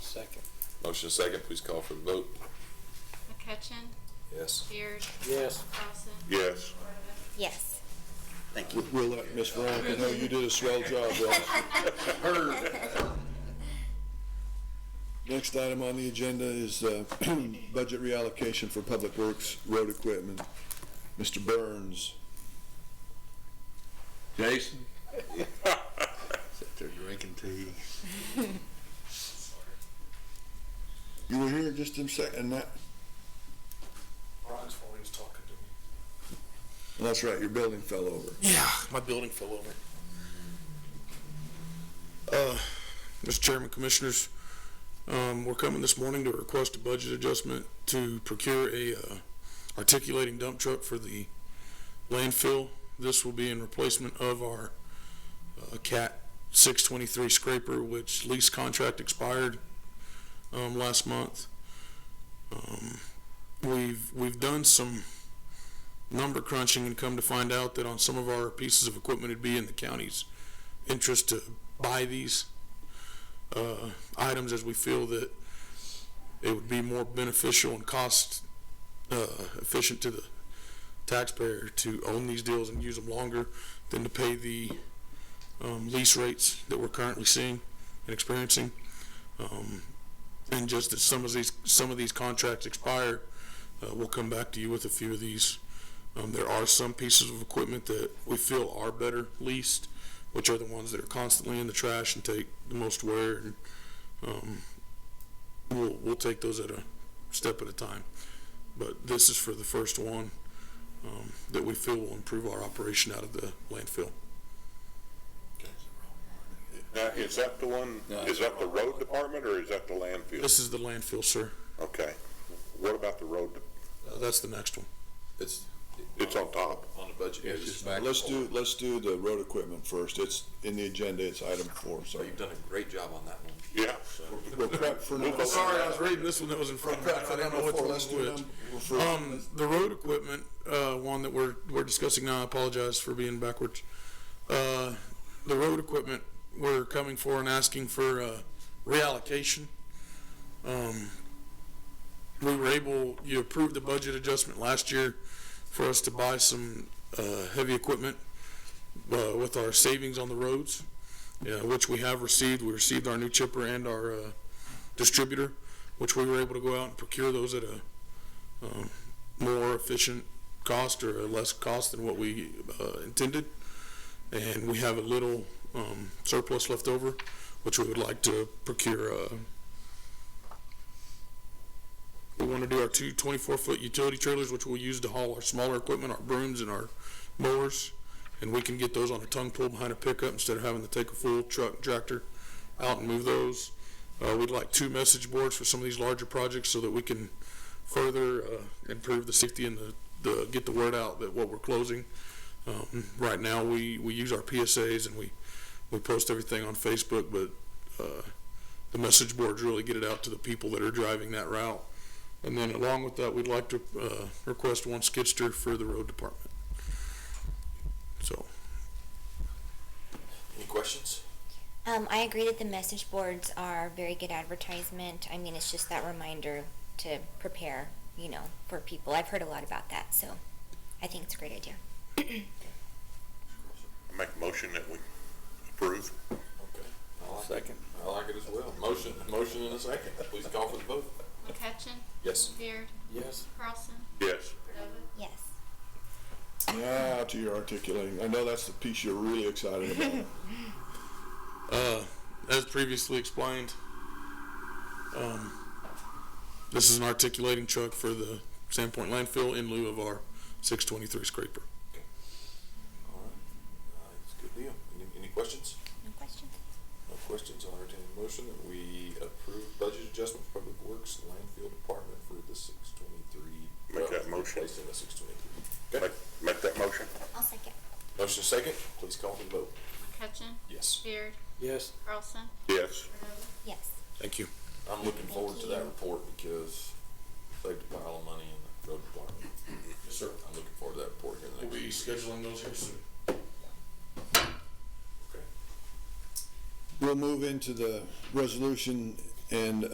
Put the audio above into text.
Second. Motion and second, please call for the vote. McCutcheon, Yes. Beard, Yes. Dawson, Yes. Cordova. Yes. Thank you. We'll- We'll let Miss Veronica know you did a swell job, Ross. Next item on the agenda is uh, budget reallocation for public works, road equipment. Mr. Burns. Jason? Sit there drinking tea. You were here just a second, and that, Ron's always talking to me. and that's right, your building fell over. Yeah, my building fell over. Uh, Mr. Chairman, Commissioners, um, we're coming this morning to request a budget adjustment to procure a, uh, articulating dump truck for the landfill. This will be in replacement of our, uh, CAT six twenty-three scraper, which lease contract expired, um, last month. Um, we've, we've done some number crunching and come to find out that on some of our pieces of equipment, it'd be in the county's interest to buy these uh, items as we feel that it would be more beneficial and cost uh, efficient to the taxpayer to own these deals and use them longer than to pay the um, lease rates that we're currently seeing and experiencing. Um, And just that some of these, some of these contracts expire, uh, we'll come back to you with a few of these um, there are some pieces of equipment that we feel are better leased, which are the ones that are constantly in the trash and take the most wear. And, um, we'll, we'll take those at a step at a time. But this is for the first one um, that we feel will improve our operation out of the landfill. Now, is that the one, is that the road department or is that the landfill? This is the landfill, sir. Okay. What about the road? de- Uh, that's the next one. It's It's on top. on the budget. Yeah, it's just back. Let's do, let's do the road equipment first. It's in the agenda, it's item four, so. You've done a great job on that one. Yeah. We'll prep for number. Sorry, I was reading this one that was in front of me. Prep I for didn't know number which four, one let's was do which. number four. Um, the road equipment, uh, one that we're, we're discussing now, I apologize for being backwards. Uh, the road equipment, we're coming for and asking for, uh, reallocation. Um, we were able, you approved the budget adjustment last year for us to buy some, uh, heavy equipment, uh, with our savings on the roads, yeah, which we have received. We received our new chipper and our, uh, distributor, which we were able to go out and procure those at a, um, more efficient cost or a less cost than what we uh, intended. And we have a little um, surplus left over, which we would like to procure. uh, We want to do our two 24-foot utility trailers, which we'll use to haul our smaller equipment, our brooms and our mowers. And we can get those on a tongue pull behind a pickup instead of having to take a full truck tractor out and move those. Uh, We'd like two message boards for some of these larger projects so that we can further uh, improve the safety and the, the, get the word out that what we're closing. Um, Right now, we, we use our PSAs and we, we post everything on Facebook, but uh, the message boards really get it out to the people that are driving that route. And then along with that, we'd like to uh, request one skidster for the road department. So, Any questions? Um, I agree that the message boards are very good advertisement. I mean, it's just that reminder to prepare, you know, for people. I've heard a lot about that, so I think it's a great idea. I make a motion that we approve. Second. I like it as well. Motion, motion and a second. Please call for the vote. McCutcheon, Yes. Beard, Yes. Carlson, Yes. Cordova. Yes. Now to your articulating. I know that's the piece you're really excited about. Uh, as previously explained, um, this is an articulating truck for the Sandpoint landfill in lieu of our 623 scraper. All right. Uh, It's a good deal. Any, any questions? No questions? No questions. I'll entertain a motion that we approve budget adjustment for public works and landfill department for the six twenty-three. Make that motion. Placed in the six twenty-three. Make, make that motion. I'll second. Motion second. Please call for the vote. McCutcheon, Yes. Beard, Yes. Carlson, Yes. Cordova. Yes. Thank you. I'm looking forward to that Thank report because saved a pile of money in the road department. Yes, sir. I'm looking forward to that report here in the We'll next. be scheduling those here soon. Okay. We'll move into the resolution and